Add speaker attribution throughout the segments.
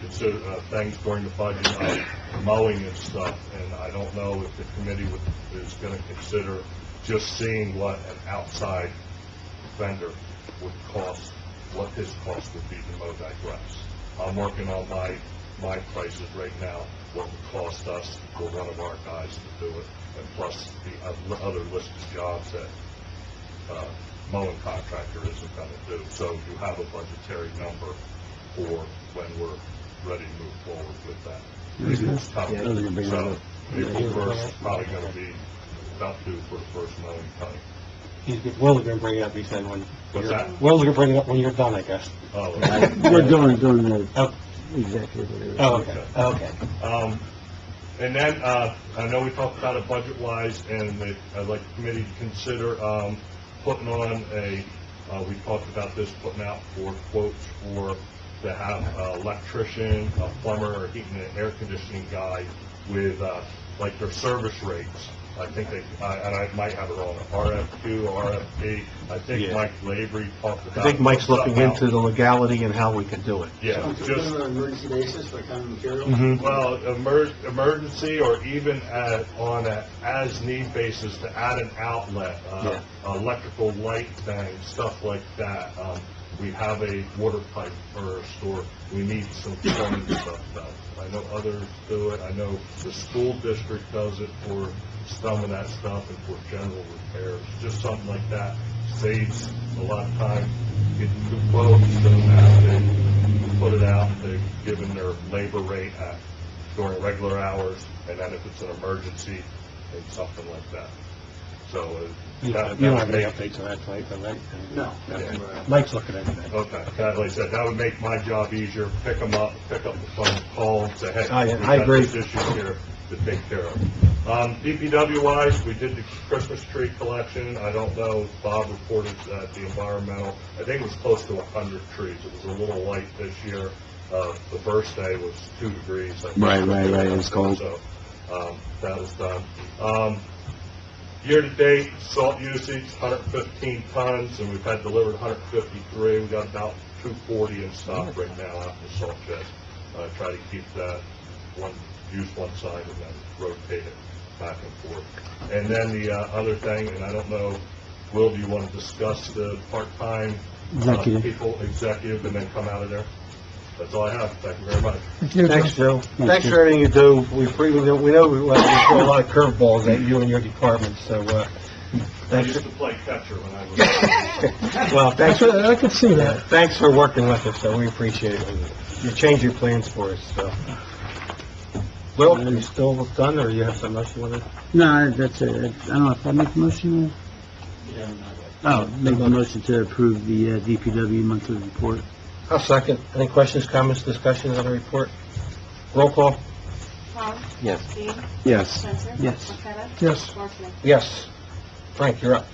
Speaker 1: consider, uh, things during the budget, uh, mowing and stuff, and I don't know if the committee would- is gonna consider just seeing what an outside vendor would cost, what his cost would be to mow that grass. I'm working on my, my prices right now, what would cost us for one of our guys to do it, and plus the oth- other list of jobs that, uh, mowing contractor isn't gonna do. So you have a budgetary number for when we're ready to move forward with that. April's
Speaker 2: Yeah, I was gonna
Speaker 1: coming,
Speaker 2: bring that
Speaker 1: so
Speaker 2: up.
Speaker 1: April first, probably gonna be about due for the first mowing cutting.
Speaker 3: He's, good- Will's gonna bring it up, he said, when,
Speaker 1: What's that?
Speaker 3: Will's gonna bring it up when you're done, I guess.
Speaker 1: Oh,
Speaker 2: We're doing, doing the
Speaker 3: Oh.
Speaker 2: executive. or whatever.
Speaker 3: Oh, okay, okay.
Speaker 1: Um, and then, uh, I know we talked about it budget-wise, and that I'd like the committee to consider, um, putting on a, uh, we talked about this, putting out for quotes for, to have an electrician, a plumber, or heating and air conditioning guy with, uh, like their service rates. I think they, I- and I might have it wrong, RFQ, RFP, I think
Speaker 3: Yeah.
Speaker 1: Mike Lavery talked about.
Speaker 3: I think Mike's looking
Speaker 1: something
Speaker 3: into
Speaker 1: else.
Speaker 3: the legality and how we can do it.
Speaker 1: Yeah, just,
Speaker 4: on an emergency basis for common material?
Speaker 1: Well, emer- emergency or even at, on a as-need basis to add an outlet, uh, electrical light thing, stuff like that. Um, we have a water pipe for our store, we need some plumbing stuff done. I know others do it, I know the school district does it for some of that stuff and for general repairs, just something like that. Saves a lot of time, getting two quotes, doesn't have to put it out, they've given their labor rate at, during regular hours, and then if it's an emergency, and something like that. So, uh, that,
Speaker 3: You don't you don't
Speaker 1: that
Speaker 3: have
Speaker 1: would
Speaker 3: any
Speaker 1: make,
Speaker 3: updates on that, Mike, on that?
Speaker 4: No.
Speaker 3: Mike's looking into that.
Speaker 1: okay, that, like I said, that would make my job easier, pick them up, pick up the phone, call, and say, hey.
Speaker 3: I-
Speaker 1: we
Speaker 3: I
Speaker 1: got
Speaker 3: agree.
Speaker 1: this issue here to take care of. Um, DPW wise, we did the Christmas tree collection, I don't know, Bob reported that the environmental, I think it was close to a hundred trees, it was a little light this year, uh, the first day was two degrees. I think.
Speaker 2: Right, right, right, it was cold.
Speaker 1: So, um, that was done. Um, year-to-date, salt usage, hundred fifteen tons, and we've had delivered hundred fifty-three, we got about two forty in stock right now out in the salt shed. Uh, try to keep that one, use one side and then rotate it back and forth. And then the, uh, other thing, and I don't know, Will, do you want to discuss the part-time uh,
Speaker 2: Executive.
Speaker 1: people, executive, and then come out of there? That's all I have, thank you very much.
Speaker 3: Thanks, Joe. Thanks
Speaker 2: you.
Speaker 3: for everything you do. We, pre- we know, we know we uh, we throw a lot of curveballs at you and your department, so, uh,
Speaker 1: I
Speaker 3: thanks,
Speaker 1: used to play catcher when I was...
Speaker 3: well,
Speaker 2: I
Speaker 3: thanks,
Speaker 2: could, I could see that.
Speaker 3: thanks for working with us, so we appreciate it. You change your plans for us, so. Will, are you still done, or you have something else you want to?
Speaker 2: No, that's it. I don't know if I make a motion or... Oh, make a motion to approve the uh, DPW monthly report.
Speaker 3: I'll second. Any questions, comments, discussions on the report? Roll call?
Speaker 5: Tom?
Speaker 2: Yes.
Speaker 5: Dean?
Speaker 2: Yes.
Speaker 5: Spencer?
Speaker 2: Yes.
Speaker 5: Marqueta?
Speaker 6: Yes.
Speaker 5: Marson?
Speaker 3: Yes. Frank, you're up.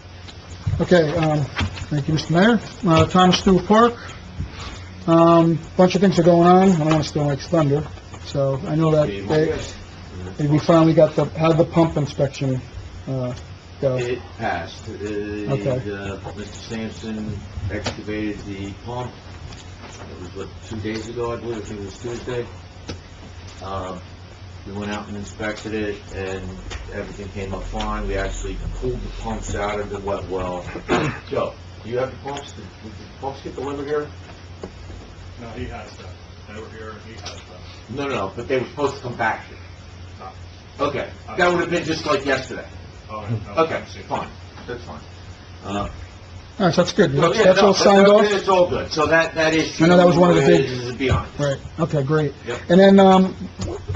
Speaker 6: Okay, um, thank you, Mr. Mayor. Uh, Thomas Stewart Park, um, bunch of things are going on, I don't want to steal Mike's thunder, so I know that they, we finally got the, how did the pump inspection, uh, go?
Speaker 7: It passed. Uh,
Speaker 6: Okay.
Speaker 7: uh, Mr. Sampson excavated the pump, it was what, two days ago, I believe, I think it was Tuesday. Uh, We went out and inspected it, and everything came up fine. We actually pulled the pumps out of the wet well. Joe, do you have the pumps? Did did the pumps get delivered here?
Speaker 1: No, he has that. They were here, and he has that.
Speaker 7: No, no, but they were supposed to come back here.
Speaker 1: No.
Speaker 7: Okay, that would have been just like yesterday.
Speaker 1: All right, no,
Speaker 7: Okay,
Speaker 1: I've seen it.
Speaker 7: fine, that's fine. Uh,
Speaker 6: All right, so that's good,
Speaker 7: No, Oh, yeah,
Speaker 6: that's
Speaker 7: no,
Speaker 6: all signed
Speaker 7: no,
Speaker 6: off?
Speaker 7: It's all good, so that, that issue.
Speaker 6: I know that was one of the big-
Speaker 7: is Beyond.
Speaker 6: Right, okay, great.
Speaker 7: Yep.
Speaker 6: And then, um,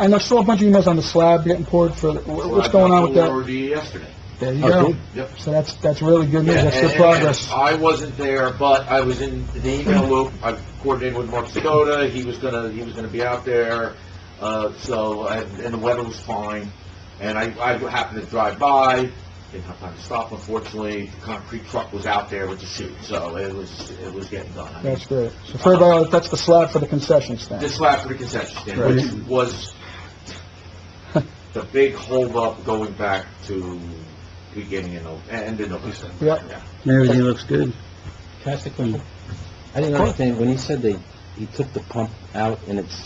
Speaker 6: I know, saw a bunch of emails on the slab getting poured for, the- wha- what's going on with
Speaker 7: I
Speaker 6: that?
Speaker 7: forwarded you yesterday.
Speaker 6: There you
Speaker 2: Oh,
Speaker 6: go.
Speaker 2: good.
Speaker 7: Yep.
Speaker 6: So that's, that's really good news, that's
Speaker 7: And-
Speaker 6: good
Speaker 7: and-
Speaker 6: progress.
Speaker 7: I wasn't there, but I was in the email loop, I coordinated with Mark Skoda, he was gonna, he was gonna be out there, uh, so, and, and the weather was fine, and I, I happened to drive by, didn't have time to stop unfortunately, the concrete truck was out there with the chute, so it was, it was getting done. I mean,
Speaker 6: That's great. So for everybody, that's the slab for the concession stand.
Speaker 7: This last for the concession stand, which was the big holdup going back to beginning in, Nov- end of November.
Speaker 6: Yep.
Speaker 2: Everything looks good.
Speaker 8: Can I ask a question? I didn't understand, when he said they, he took the pump out and it's